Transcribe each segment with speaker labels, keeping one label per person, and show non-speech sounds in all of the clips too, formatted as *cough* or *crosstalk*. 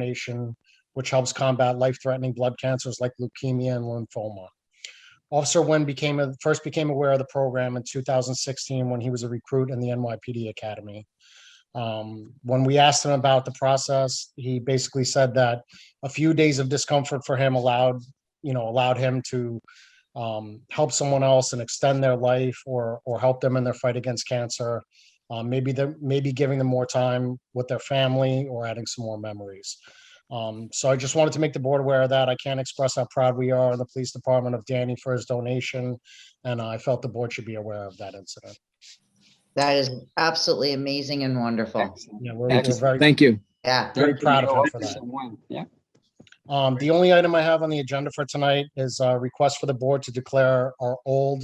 Speaker 1: donation, which helps combat life-threatening blood cancers like leukemia and lymphoma. Officer Nguyen became, first became aware of the program in 2016 when he was a recruit in the NYPD Academy. Um, When we asked him about the process, he basically said that a few days of discomfort for him allowed, you know, allowed him to um, help someone else and extend their life or, or help them in their fight against cancer. Uh, Maybe they're, maybe giving them more time with their family or adding some more memories. Um, so I just wanted to make the board aware of that. I can't express how proud we are in the police department of Danny for his donation. And I felt the board should be aware of that incident.
Speaker 2: That is absolutely amazing and wonderful.
Speaker 1: Yeah, we're we're
Speaker 3: Excellent.
Speaker 1: very,
Speaker 3: Thank you.
Speaker 2: Yeah,
Speaker 1: very
Speaker 3: Thank you,
Speaker 1: proud of
Speaker 3: Mayor
Speaker 1: him for that.
Speaker 3: Officer Nguyen. Yeah,
Speaker 1: Um, the only item I have on the agenda for tonight is a request for the board to declare our old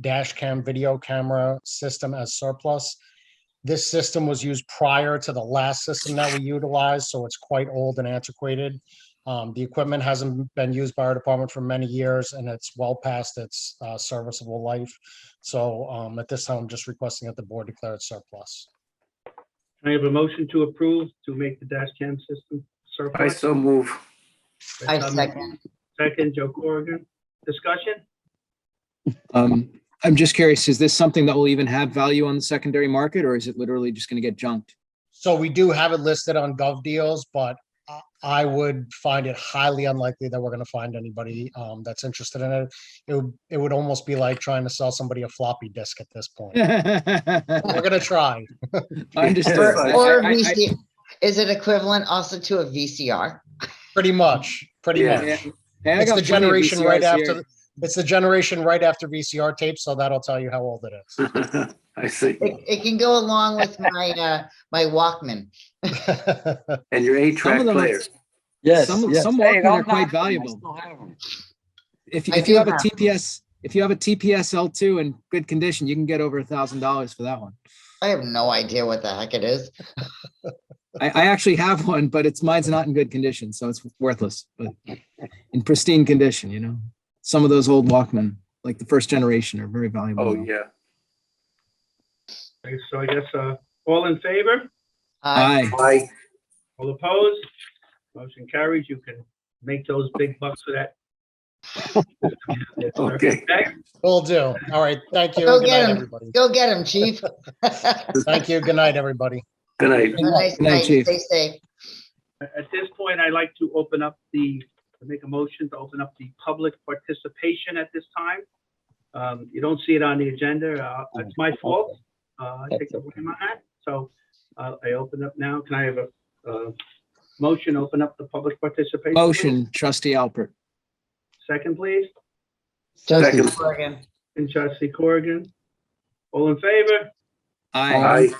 Speaker 1: dash cam video camera system as surplus. This system was used prior to the last system that we utilized, so it's quite old and antiquated. Um, the equipment hasn't been used by our department for many years and it's well past its, uh, serviceable life. So, um, at this time, I'm just requesting that the board declare it surplus.
Speaker 4: Can I have a motion to approve to make the dash cam system surplus?
Speaker 5: I so move.
Speaker 4: By
Speaker 2: I
Speaker 4: Tom-
Speaker 2: second.
Speaker 4: Second, Joe Corrigan. Discussion?
Speaker 3: um, I'm just curious, is this something that will even have value on the secondary market or is it literally just gonna get junked? *laughs*
Speaker 1: So we do have it listed on Gov Deals, but I- I would find it highly unlikely that we're gonna find anybody um that's interested in it. It would, it would almost be like trying to sell somebody a floppy disk at this point. We're gonna try.
Speaker 3: Understood.
Speaker 2: Or
Speaker 3: I-
Speaker 2: or
Speaker 3: I- I-
Speaker 2: VC, is it equivalent also to a VCR?
Speaker 1: Pretty much, pretty
Speaker 5: Yeah.
Speaker 1: much.
Speaker 3: Hey, I
Speaker 1: It's
Speaker 3: got
Speaker 1: the
Speaker 3: plenty of
Speaker 1: generation right
Speaker 3: VCRs here.
Speaker 1: after, it's the generation right after VCR tapes, so that'll tell you how old it is.
Speaker 5: I see.
Speaker 2: It, it can go along
Speaker 3: *laughs*
Speaker 2: with my, uh, my Walkman.
Speaker 5: And your
Speaker 3: Some
Speaker 5: eight-track
Speaker 3: of them are-
Speaker 5: player.
Speaker 6: Yes,
Speaker 3: Some,
Speaker 6: yes.
Speaker 3: some
Speaker 6: Hey,
Speaker 3: Walkman
Speaker 6: don't
Speaker 3: are quite
Speaker 6: knock them. I
Speaker 3: valuable.
Speaker 6: still have them.
Speaker 3: If,
Speaker 2: I
Speaker 3: if you
Speaker 2: do
Speaker 3: have a
Speaker 2: have
Speaker 3: TPS, if you have a TPS L2 in good condition, you can get over a thousand dollars for that one.
Speaker 2: I have no idea what the heck it is.
Speaker 3: I, I actually have one, but it's, mine's not in good condition, so it's worthless, but in pristine condition, you know? Some of those old Walkman, like the first generation are very valuable.
Speaker 5: Oh,
Speaker 3: now.
Speaker 5: yeah.
Speaker 4: Okay, So I guess, uh, all in favor?
Speaker 2: Uh,
Speaker 3: Aye.
Speaker 5: I,
Speaker 4: All opposed? Motion carries. You can make those big bucks for
Speaker 5: *laughs*
Speaker 4: that. Yes, sir.
Speaker 5: Okay.
Speaker 1: *laughs* Will do. All right, thank you.
Speaker 2: Go
Speaker 1: Good
Speaker 2: get
Speaker 1: night,
Speaker 2: 'em.
Speaker 1: everybody.
Speaker 2: Go get him, chief. *laughs* Have
Speaker 1: Thank you. Good night, everybody.
Speaker 5: good night.
Speaker 2: a nice
Speaker 3: Good night,
Speaker 2: night.
Speaker 3: chief.
Speaker 2: Stay safe.
Speaker 4: At this point, I'd like to open up the, to make a motion to open up the public participation at this time. Um, You don't see it on the agenda. uh, It's my fault. Uh, I take the blame on that. So uh, I open up now. Can I have a uh, motion, open up the public participation? please?
Speaker 3: Motion, trustee Alpert.
Speaker 4: Second, please.
Speaker 5: Second.
Speaker 2: Corrigan.
Speaker 4: And trustee Corrigan. All in favor?
Speaker 3: Aye.
Speaker 5: I,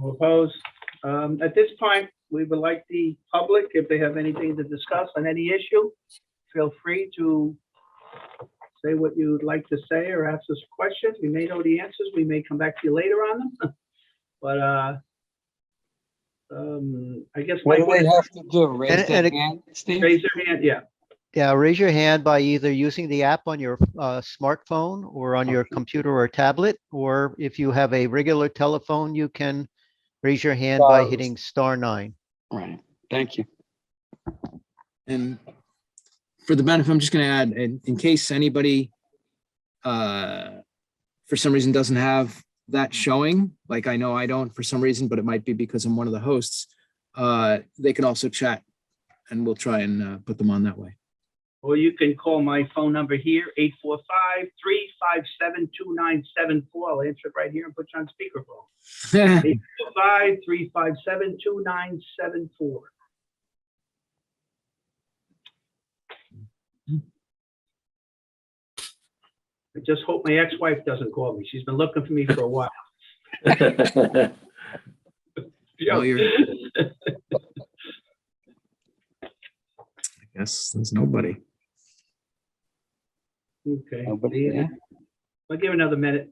Speaker 4: All opposed? Um, At this point, we would like the public, if they have anything to discuss on any issue, feel free to say what you'd like to say or ask us questions. We may know the answers. We may come back to you later on them. *laughs* But uh, um, I guess.
Speaker 6: What do
Speaker 4: Mike
Speaker 6: they
Speaker 4: would-
Speaker 6: have to do? Raise
Speaker 7: And-
Speaker 6: their
Speaker 7: and it-
Speaker 6: hand, Steve?
Speaker 4: Raise your hand, yeah.
Speaker 7: Yeah, raise your hand by either using the app on your uh, smartphone or on your computer or tablet, or if you have a regular telephone, you can raise your hand by
Speaker 6: Stars.
Speaker 7: hitting star nine.
Speaker 6: Right, thank you.
Speaker 3: And for the benefit, I'm just gonna add, in, in case anybody uh, for some reason doesn't have that showing, like I know I don't for some reason, but it might be because I'm one of the hosts, uh, they can also chat and we'll try and uh, put them on that way. *laughs*
Speaker 4: Or you can call my phone number here, 845-357-2974. I'll answer it right here and put you on speakerphone. Five three five seven two nine seven four. I just hope my ex-wife doesn't call me. She's been looking for me for a while.
Speaker 3: Well, you're- Yes, there's nobody.
Speaker 4: Okay,
Speaker 6: Nobody
Speaker 4: yeah.
Speaker 6: there?
Speaker 4: I'll give it another minute.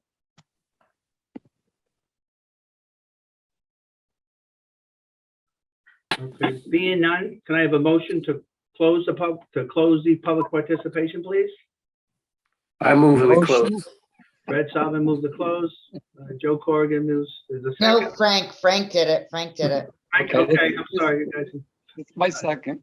Speaker 4: Okay, being none, can I have a motion to close the pub, to close the public participation, please?
Speaker 5: I move
Speaker 6: Oh,
Speaker 5: in the close.
Speaker 4: Brad Salvin moves to close. Uh, Joe Corrigan moves, is a
Speaker 2: No,
Speaker 4: second.
Speaker 2: Frank, Frank did it. Frank did it.
Speaker 4: Frank,
Speaker 6: okay.
Speaker 4: Okay, I'm sorry, you guys.
Speaker 6: It's my second.